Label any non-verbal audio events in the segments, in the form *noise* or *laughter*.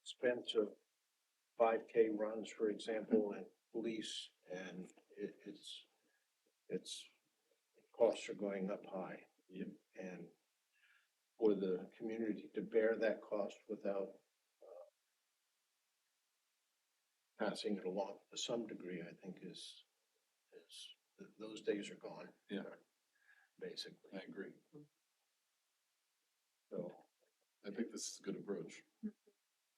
expense of five K runs, for example, and police, and it, it's, it's, costs are going up high. Yep. And for the community to bear that cost without uh, passing it along to some degree, I think is, is, th- those days are gone. Yeah. Basically, I agree. so. I think this is a good approach.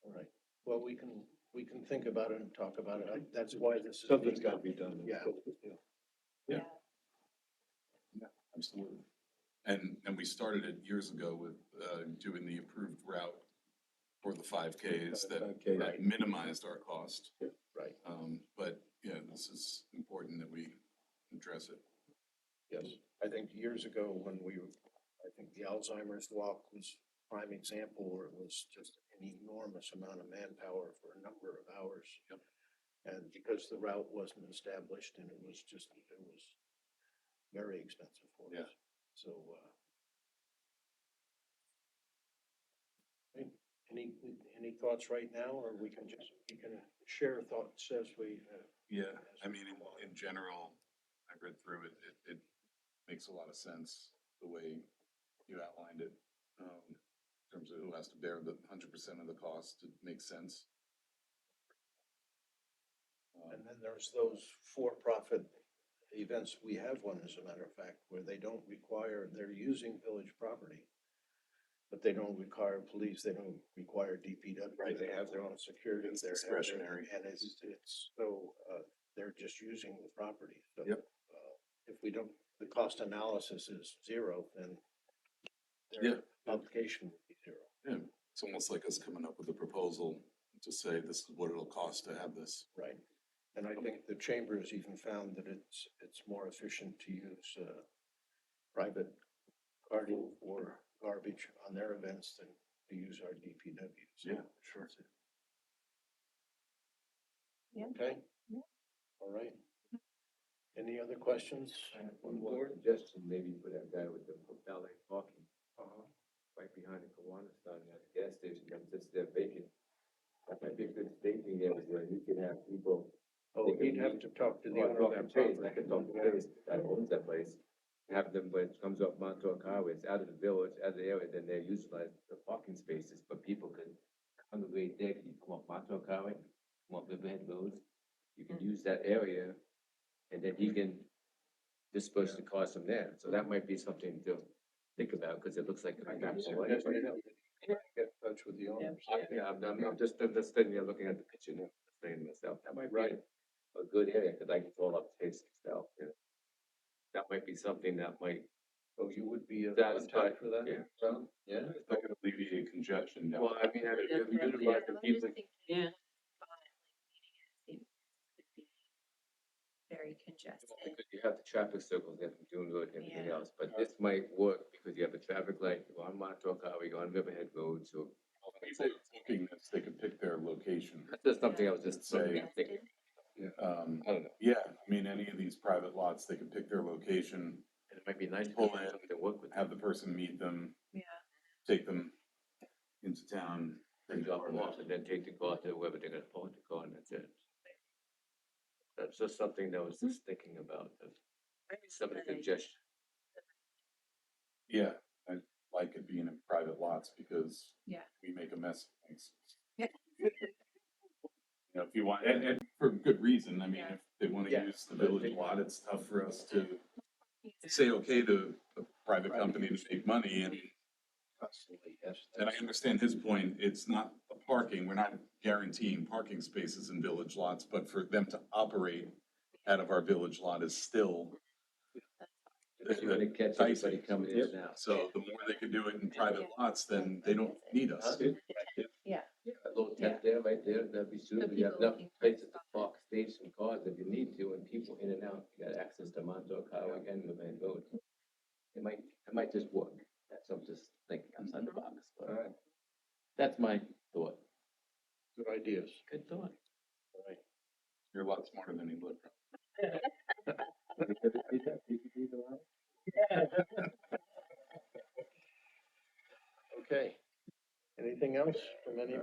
All right, well, we can, we can think about it and talk about it, I- that's why this is. Something's gotta be done. Yeah. Yeah. Absolutely. And, and we started it years ago with, uh, doing the approved route for the five Ks that Okay, that minimized our cost. Yeah, right. Um, but, yeah, this is important that we address it. Yes, I think years ago when we, were- I think the Alzheimer's walk was prime example, where it was just an enormous amount of manpower for a number of hours. Yep. And because the route wasn't established and it was just, it was very expensive for us. Yeah. So, uh. any- Any, any thoughts right now, or we can just, you can share thoughts as we, uh, Yeah, I mean, in, in general, I read through it, it, it makes a lot of sense, the way you outlined it. Um, in terms of who has to bear the hundred percent of the cost, it makes sense. Um, And then there's those for-profit events, we have one as a matter of fact, where they don't require, they're using village property. But they don't require police, they don't require DPW. Right. They have their own security. It's they have their- discretionary. And it's, it's, so, uh, they're just using the property, so. Yep. uh, If we don't, the cost analysis is zero, then Yeah. their obligation would be zero. It's almost like us coming up with a proposal to say this is what it'll cost to have this. Right, and I think the chamber has even found that it's, it's more efficient to use, uh, private carting or garbage on their events than to use our DPW. So, sure. Okay? Yeah. All right. Any other questions? I have One more suggestion, maybe for that guy with the valet parking, Uh-huh. right behind the Kiwanis down there, the gas station, that's just there vacant. That might be a good staging area where you could have people. Oh, you'd have to talk to the Well, owner of talking that Chase, property. I could talk to Chase, that owns that place. Have them, when it comes off Montauk Highway, it's out of the village, out of the area, then they utilize the parking spaces, but people could congregate there, 'cause you come off Montauk Highway, come off Riverhead Road. You can Mm-hmm. use that area, and then he can disperse the cars from there, so that might be something to think about, because it looks like. I got Yeah, you. Yes, we know. Get in touch with the owners. I'm, I'm, I'm just, I'm just sitting here looking at the picture now, saying to myself, that might be Right. a good area, cause I can call up Chase myself, you know. That might be something that might, So you would be a That's contact for that? yeah. Tom? Yeah? If I could alleviate congestion down. well, I mean, I, Yeah, if you correct, do yeah. like the I'm just people, thinking Yeah. about it, like, meeting it seems to be Very congested. because you have the traffic circles there from June Road and everything Yeah. else, but this might work, because you have a traffic light, you're on Montauk Highway, you're on Riverhead Road, so. People looking this, they could pick their *laughs* location. That's just something I was just Say- saying, thinking, Um, I don't know, yeah, I mean, any of these private lots, they could pick their location, and it might be nice to Pull have in, something to work with. have the person meet them, Yeah, take them into town. And drop them off Well, and then take the car to wherever they're gonna park the car and that's it. That's just something that I was just thinking about, of very some of the good idea. congestion. Yeah, I like it being in private lots because Yeah. we make a mess of things. Yeah. *laughs* You know, if you want, and, and for good reason, I mean, Yeah. if they wanna Yeah. use the village lot, it's tough for us to Yeah. say okay to a private company to make money and Constantly, yes. And I that's- understand his point, it's not the parking, we're not guaranteeing parking spaces in village lots, but for them to operate out of our village lot is still, Because you're gonna catch anybody coming in now. so the more they can do it in private lots, then they don't need us. Yeah. A little tent there, right there, that'd be So suitable, you have people enough looking for places to spots. park, stage some cars if you need to, and people in and out, you got access to Montauk Highway and the main road. It might, it might just work, that's, I'm just thinking outside the box, All but right, that's my thought. good ideas. Good thought. All right. You're a lot smarter than you look. Okay. Anything else from anybody?